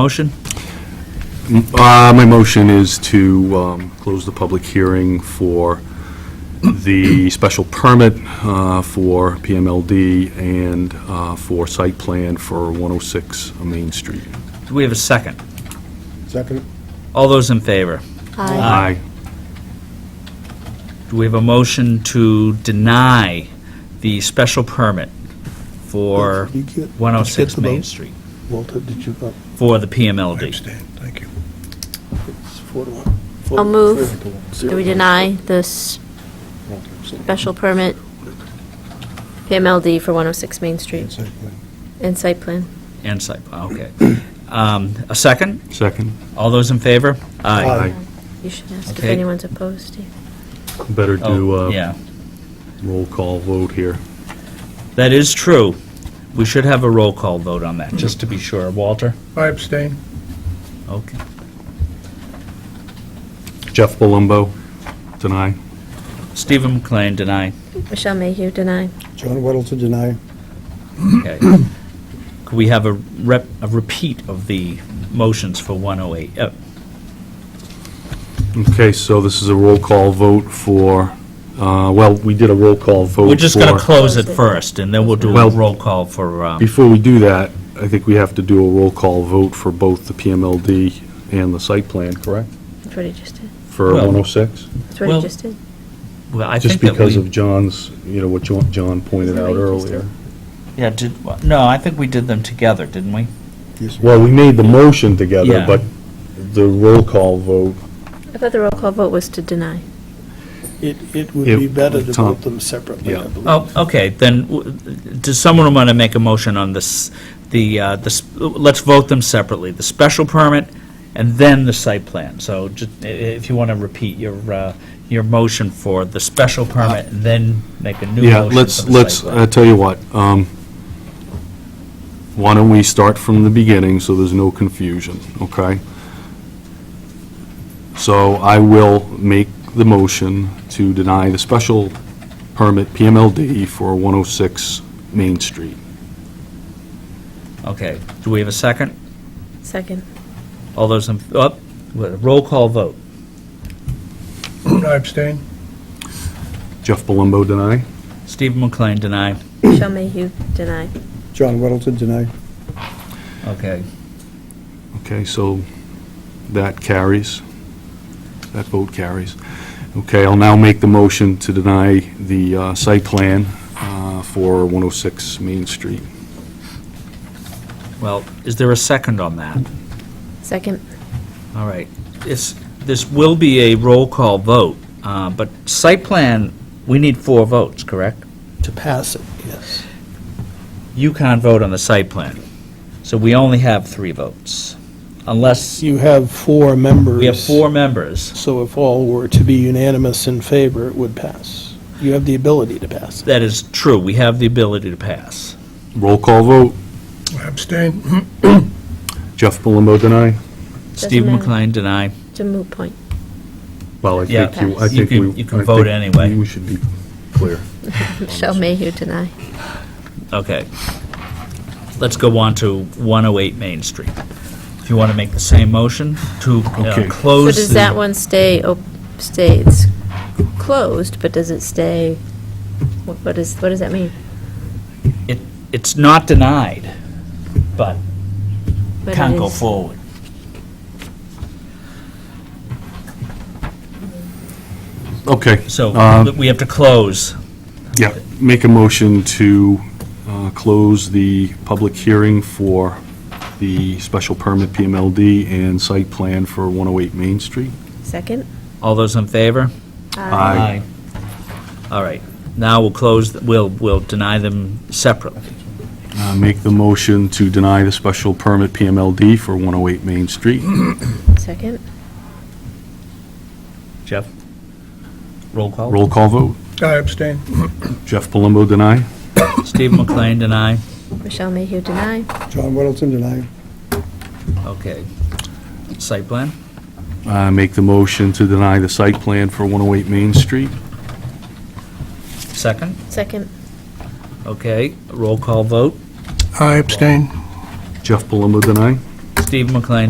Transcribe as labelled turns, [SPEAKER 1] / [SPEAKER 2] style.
[SPEAKER 1] Motion?
[SPEAKER 2] Uh, My motion is to um, close the public hearing for the special permit uh, for PMLD and uh, for site plan for 106 Main Street.
[SPEAKER 1] Do we have a second?
[SPEAKER 3] Second?
[SPEAKER 1] All those in favor?
[SPEAKER 2] Aye.
[SPEAKER 1] Do we have a motion to deny the special permit for
[SPEAKER 3] Did you get- did you get
[SPEAKER 1] 106
[SPEAKER 3] the
[SPEAKER 1] Main
[SPEAKER 3] vote?
[SPEAKER 1] Street
[SPEAKER 3] Walter, did you uh, vote?
[SPEAKER 1] for the
[SPEAKER 4] I
[SPEAKER 1] PMLD?
[SPEAKER 4] abstain, thank you.
[SPEAKER 3] It's four to one. Four-
[SPEAKER 5] I'll move.
[SPEAKER 3] three to one.
[SPEAKER 5] Do
[SPEAKER 3] Zero.
[SPEAKER 5] we deny this special permit, PMLD for 106 Main Street,
[SPEAKER 4] Site plan.
[SPEAKER 5] and site plan?
[SPEAKER 1] And site, okay. Um, A second?
[SPEAKER 2] Second?
[SPEAKER 1] All those in favor?
[SPEAKER 3] Aye.
[SPEAKER 5] You should ask if
[SPEAKER 1] Okay.
[SPEAKER 5] anyone's opposed, Steve.
[SPEAKER 2] Better do
[SPEAKER 1] Oh,
[SPEAKER 2] a
[SPEAKER 1] Yeah,
[SPEAKER 2] roll call vote here.
[SPEAKER 1] that is true. We should have a roll call vote on that, just to be sure. Walter?
[SPEAKER 4] I abstain.
[SPEAKER 1] Okay.
[SPEAKER 2] Jeff Palumbo, deny.
[SPEAKER 1] Stephen McLean, deny.
[SPEAKER 5] Michelle Mayhew, deny.
[SPEAKER 3] John Weddleton, deny.
[SPEAKER 1] Okay. Could we have a rep, a repeat of the motions for 108? Uh,
[SPEAKER 2] Okay, so this is a roll call vote for, uh, well, we did a roll call vote
[SPEAKER 1] We're just going to
[SPEAKER 2] for-
[SPEAKER 1] close it first, and then we'll do a
[SPEAKER 2] Well-
[SPEAKER 1] roll call for, um,
[SPEAKER 2] Before we do that, I think we have to do a roll call vote for both the PMLD and the site plan, correct?
[SPEAKER 5] That's what he just did.
[SPEAKER 2] For
[SPEAKER 1] Well-
[SPEAKER 2] 106?
[SPEAKER 5] That's what
[SPEAKER 1] Well,
[SPEAKER 5] he just did.
[SPEAKER 1] well, I think
[SPEAKER 2] Just
[SPEAKER 1] that
[SPEAKER 2] because
[SPEAKER 1] we-
[SPEAKER 2] of John's, you know, what Jo- John pointed
[SPEAKER 5] Isn't that
[SPEAKER 2] out
[SPEAKER 5] what you just
[SPEAKER 2] earlier.
[SPEAKER 1] Yeah, did, no, I think we did them together, didn't we?
[SPEAKER 2] Well, we made the motion together,
[SPEAKER 1] Yeah.
[SPEAKER 2] but the roll call vote,
[SPEAKER 5] I thought the roll call vote was to deny.
[SPEAKER 3] It, it would
[SPEAKER 2] If- uh,
[SPEAKER 3] be better to
[SPEAKER 2] Tom.
[SPEAKER 3] vote them separately, I
[SPEAKER 2] Yeah.
[SPEAKER 3] believe.
[SPEAKER 1] Oh, okay, then, w- does someone want to make a motion on this, the, uh, the s- let's vote them separately, the special permit and then the site plan? So just, i- i- if you want to repeat your, uh, your motion for the special permit, and then make a new
[SPEAKER 2] yeah,
[SPEAKER 1] motion for the
[SPEAKER 2] let's,
[SPEAKER 1] site
[SPEAKER 2] let's, uh,
[SPEAKER 1] plan.
[SPEAKER 2] I tell you what, um, why don't we start from the beginning so there's no confusion, okay? So I will make the motion to deny the special permit PMLD for 106 Main Street.
[SPEAKER 1] Okay, do we have a second?
[SPEAKER 5] Second.
[SPEAKER 1] All those in, up, roll call vote.
[SPEAKER 4] Um, I abstain.
[SPEAKER 2] Jeff Palumbo, deny?
[SPEAKER 1] Stephen McLean, deny.
[SPEAKER 5] Michelle Mayhew, deny.
[SPEAKER 3] John Weddleton, deny.
[SPEAKER 1] Okay,
[SPEAKER 2] Okay, so that carries. That vote carries. Okay, I'll now make the motion to deny the uh, site plan uh, for 106 Main Street.
[SPEAKER 1] well, is there a second on that?
[SPEAKER 5] Second.
[SPEAKER 1] All right. This, this will be a roll call vote, uh, but site plan, we need four votes, correct?
[SPEAKER 3] To pass it, yes.
[SPEAKER 1] You can't vote on the site plan, so we only have three votes. Unless
[SPEAKER 3] You have four members.
[SPEAKER 1] we have four members,
[SPEAKER 3] So if all were to be unanimous in favor, it would pass. You have the ability to pass.
[SPEAKER 1] that is true, we have the ability to pass.
[SPEAKER 2] Roll call vote.
[SPEAKER 4] I abstain.
[SPEAKER 2] Jeff Palumbo, deny?
[SPEAKER 1] Steve
[SPEAKER 5] matter.
[SPEAKER 1] McLean, deny.
[SPEAKER 5] It's a moot point.
[SPEAKER 2] Well, I
[SPEAKER 1] Yeah.
[SPEAKER 2] think you, I
[SPEAKER 1] You
[SPEAKER 2] think we...
[SPEAKER 1] can- you can
[SPEAKER 2] I
[SPEAKER 1] vote
[SPEAKER 2] think
[SPEAKER 1] anyway.
[SPEAKER 2] We should be clear.
[SPEAKER 5] Michelle Mayhew, deny.
[SPEAKER 1] Okay. Let's go on to 108 Main Street. If you want to make the same motion to uh,
[SPEAKER 2] Okay.
[SPEAKER 5] So
[SPEAKER 1] close.
[SPEAKER 5] does
[SPEAKER 1] the-
[SPEAKER 5] that one stay, op- stay, it's closed, but does it stay, what what is, what does that mean?
[SPEAKER 1] It, it's not denied, but
[SPEAKER 5] But it
[SPEAKER 1] can't go
[SPEAKER 5] is-
[SPEAKER 1] forward.
[SPEAKER 2] Okay.
[SPEAKER 1] So
[SPEAKER 2] um,
[SPEAKER 1] th- we have to close.
[SPEAKER 2] Yeah, make a motion to uh, close the public hearing for the special permit PMLD and site plan for 108 Main Street.
[SPEAKER 5] Second?
[SPEAKER 1] All those in favor?
[SPEAKER 2] Aye.
[SPEAKER 1] All right. Now we'll close, th- we'll, we'll deny them separately.
[SPEAKER 2] Uh, Make the motion to deny the special permit PMLD for 108 Main Street.
[SPEAKER 5] Second?
[SPEAKER 1] Jeff? Roll call?
[SPEAKER 2] Roll call vote.
[SPEAKER 4] I abstain.
[SPEAKER 2] Jeff Palumbo, deny.
[SPEAKER 1] Steve McLean, deny.
[SPEAKER 5] Michelle Mayhew, deny.
[SPEAKER 3] John Weddleton, deny.
[SPEAKER 1] Okay. Site plan?
[SPEAKER 2] Uh, Make the motion to deny the site plan for 108 Main Street.
[SPEAKER 1] Second?
[SPEAKER 5] Second?
[SPEAKER 1] Okay. Roll call vote.
[SPEAKER 4] I abstain.
[SPEAKER 2] Jeff Palumbo, deny.
[SPEAKER 1] Steve McLean